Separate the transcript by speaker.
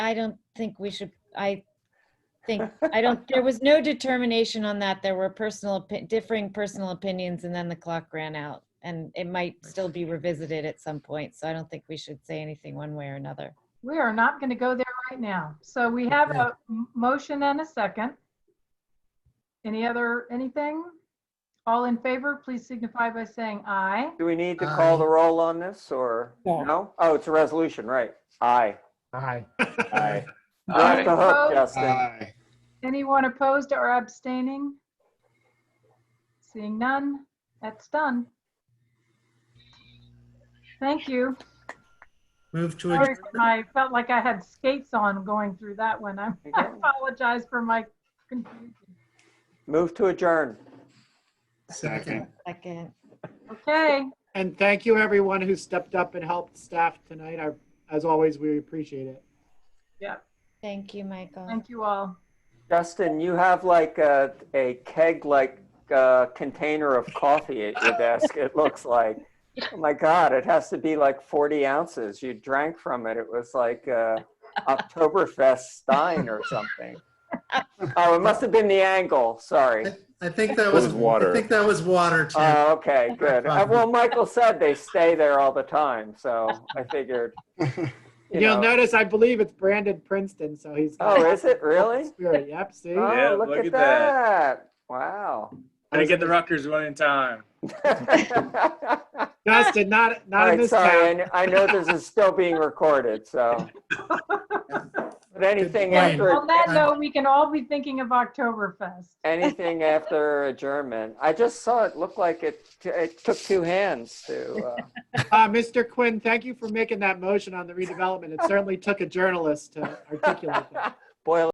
Speaker 1: I don't think we should, I think, I don't, there was no determination on that. There were personal, opi- differing personal opinions and then the clock ran out. And it might still be revisited at some point, so I don't think we should say anything one way or another.
Speaker 2: We are not going to go there right now. So we have a m- motion and a second. Any other, anything? All in favor, please signify by saying aye.
Speaker 3: Do we need to call the
Speaker 4: Aye.
Speaker 3: roll on this or
Speaker 5: No.
Speaker 3: no? Oh, it's a resolution, right? Aye.
Speaker 4: Aye.
Speaker 3: Aye. You're off the hook,
Speaker 2: Aye.
Speaker 3: Justin.
Speaker 2: Anyone opposed or abstaining? Seeing none, that's done. Thank you.
Speaker 5: Move to
Speaker 2: Sorry,
Speaker 5: adjourn.
Speaker 2: for my- I felt like I had skates on going through that one. I I apologize for my confusion.
Speaker 3: Move to adjourn.
Speaker 5: Second.
Speaker 1: Second,
Speaker 2: Okay,
Speaker 6: And thank you, everyone who stepped up and helped staff tonight. I- As always, we appreciate it.
Speaker 1: thank you, Michael.
Speaker 2: thank you all.
Speaker 3: Justin, you have like a, a keg-like uh, container of coffee at your desk, it looks like. Oh my God, it has to be like 40 ounces. You drank from it. It was like uh, Oktoberfest Stein or something. Oh, it must have been the angle, sorry.
Speaker 5: I think that
Speaker 7: It
Speaker 5: was,
Speaker 7: was water.
Speaker 5: I think that was water too.
Speaker 3: Oh, okay, good. Uh, Well, Michael said they stay there all the time, so I figured. you
Speaker 6: You'll
Speaker 3: know-
Speaker 6: notice, I believe it's Brandon Princeton, so he's.
Speaker 3: Oh, is it really?
Speaker 6: Spirit, yep, see?
Speaker 3: Oh,
Speaker 8: Yeah,
Speaker 3: look,
Speaker 8: look
Speaker 3: at,
Speaker 8: at
Speaker 3: that.
Speaker 8: that.
Speaker 3: Wow.
Speaker 8: Gotta get the Rutgers one in time.
Speaker 3: all
Speaker 6: Justin, not, not in
Speaker 3: right,
Speaker 6: this
Speaker 3: sorry. I
Speaker 6: town.
Speaker 3: kn- I know this is still being recorded, so. But anything
Speaker 5: Good point.
Speaker 3: after
Speaker 2: On that note, we can all be thinking of Oktoberfest.
Speaker 3: anything after adjournment, I just saw it looked like it it took two hands to. Uh,
Speaker 6: Uh, Mr. Quinn, thank you for making that motion on the redevelopment. It certainly took a journalist to articulate that.
Speaker 3: boil